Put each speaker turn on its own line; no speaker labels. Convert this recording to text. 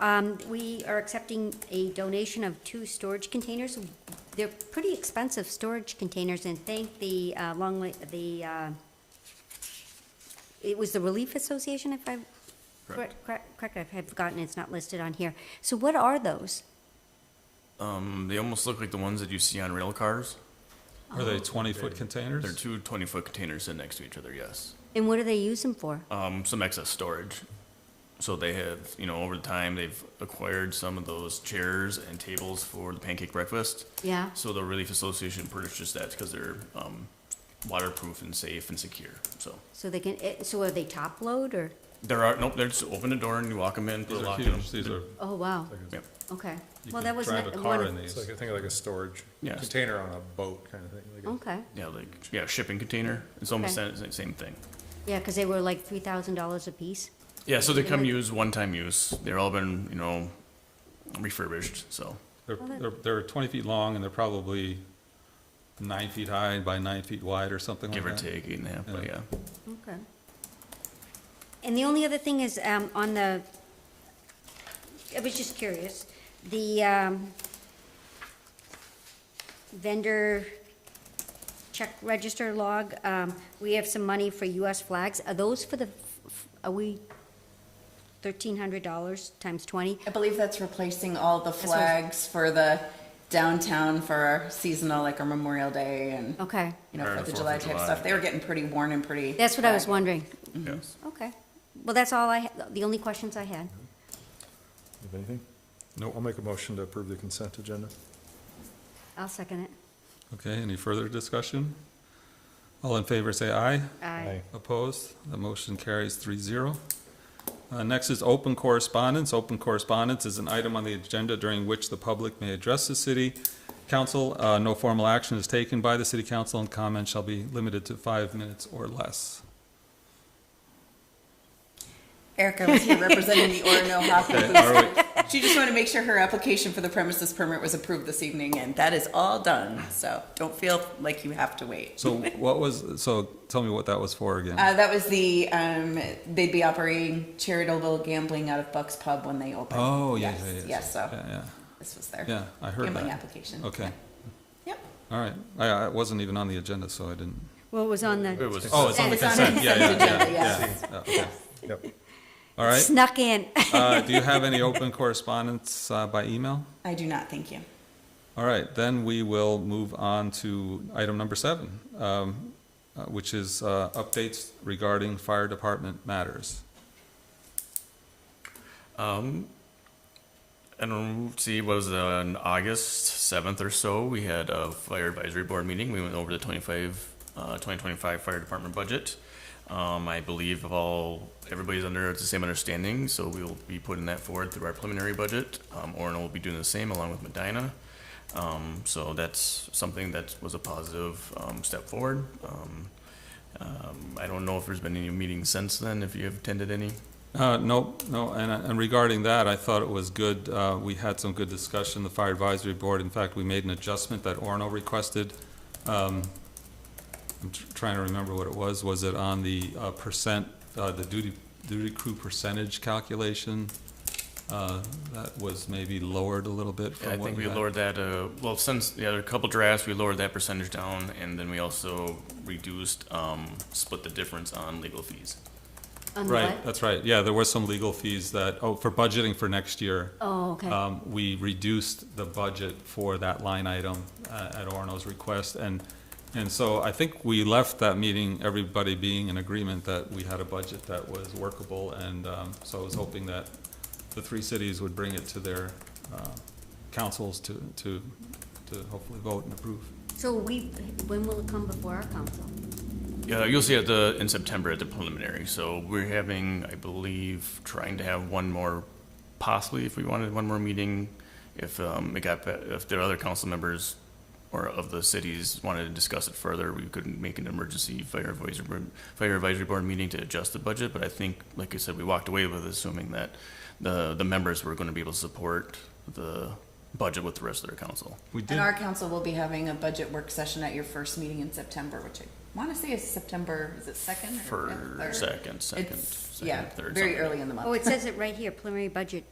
Um, we are accepting a donation of two storage containers. They're pretty expensive storage containers, and thank the, uh, Long Lake, the, uh, it was the Relief Association, if I,
Correct.
correct, correct, I have forgotten, it's not listed on here. So what are those?
Um, they almost look like the ones that you see on rail cars.
Are
Oh.
they twenty-foot containers?
They're two 20 foot containers sit next to each other, yes.
And what do they use them for?
Um, some excess storage. So they have, you know, over the time, they've acquired some of those chairs and tables for the pancake breakfast.
Yeah,
So the Relief Association purchased that because they're um, waterproof and safe and secure. So
so they can, eh, so are they top load, or,
there are, nope, there's open the door and you walk them in, put
These
a
are
lock in them.
huge, these are,
oh, wow,
Yep.
okay.
you
Well, that
can
was
drive a
not- one
car
of-
in
It's
these.
like, I think like a storage
Yes.
container on a boat kind of thing. like a-
Okay,
Yeah, like, yeah, shipping container. It's almost
Okay.
the same- same thing.
yeah, because they were like three thousand dollars apiece.
Yeah, so they come
Yeah.
use one-time use. They're all been, you know, refurbished, so.
they're,
Well, that-
they're, they're twenty feet long and they're probably nine feet high by nine feet wide or something like
Give
that.
or take, eight and a half, but yeah.
Yeah.
Okay. And the only other thing is, um, on the, I was just curious, the, um, vendor check register log, um, we have some money for US flags. Are those for the, f- f- are we thirteen hundred dollars times twenty?
I believe that's replacing all the
what I was-
flags for the downtown for our seasonal, like our Memorial Day and,
Okay,
you know,
Or
Fourth
the
of
Fourth
July
of
type
July.
stuff. They were getting pretty worn and pretty.
that's what I was
ragged.
wondering.
Yes.
Okay. Well, that's all I, ha- the only questions I had.
You have anything? No. I'll make a motion to approve the consent agenda.
I'll second it.
Okay, any further discussion? All in favor, say aye.
Aye.
Opposed? The motion carries three zero. Uh, next is open correspondence. Open correspondence is an item on the agenda during which the public may address the city council. Uh, no formal action is taken by the city council and comments shall be limited to five minutes or less.
Erica was here representing the Orono
Okay,
Hockey.
all right.
She just wanted to make sure her application for the premises permit was approved this evening and that is all done. So don't feel like you have to wait.
So what was, so tell me what that was for again.
Uh, that was the, um, they'd be operating charitable gambling out of Buck's Pub when they open.
Oh, yeah, yeah, yeah.
Yes, so
Yeah, yeah,
this was their
yeah, I heard
gambling
that.
application.
Okay,
Yep.
all right. I, I wasn't even on the agenda, so I didn't.
Well, it was on the.
It was,
Oh, it's on the
It's on the
consent, yeah, yeah,
consent
yeah,
agenda,
yeah.
yes.
yeah, okay.
Yep.
All right.
Snuck in.
Uh, do you have any open correspondence uh, by email?
I do not, thank you.
All right, then we will move on to item number seven, um, uh, which is uh, updates regarding fire department matters.
Um, and see, was it on August seventh or so, we had a fire advisory board meeting. We went over the twenty-five, uh, twenty twenty-five fire department budget. Um, I believe of all, everybody's under the same understanding, so we will be putting that forward through our preliminary budget. Um, Orno will be doing the same along with Medina. Um, so that's something that was a positive, um, step forward. Um, um, I don't know if there's been any meetings since then, if you have attended any.
Uh, no, no, and, and regarding that, I thought it was good, uh, we had some good discussion, the fire advisory board, in fact, we made an adjustment that Orno requested. Um, I'm tr- trying to remember what it was, was it on the uh, percent, uh, the duty, duty crew percentage calculation? Uh, that was maybe lowered a little bit
Yeah, I
from what
think
we
we
had.
lowered that, uh, well, since the other couple drafts, we lowered that percentage down, and then we also reduced, um, split the difference on legal fees.
On the
Right,
what?
that's right, yeah, there were some legal fees that, oh, for budgeting for next year.
Oh, okay.
Um, we reduced the budget for that line item uh, at Orno's request, and, and so I think we left that meeting, everybody being in agreement that we had a budget that was workable, and um, so I was hoping that the three cities would bring it to their uh, councils to, to, to hopefully vote and approve.
So we, when will it come before our council?
Yeah, you'll see at the, in September at the preliminary, so we're having, I believe, trying to have one more, possibly if we wanted one more meeting, if, um, it got, be- if there are other council members or of the cities wanted to discuss it further, we could make an emergency fire advisory, board- fire advisory board meeting to adjust the budget, but I think, like I said, we walked away with assuming that the, the members were gonna be able to support the budget with the rest of their council.
We did,
And our council will be having a budget work session at your first meeting in September, which I want to say is September, is it second or?
For
third?
second, second,
It's-
second,
Yeah,
third,
very
something.
early in the
Oh,
month.
it says it right here, preliminary budget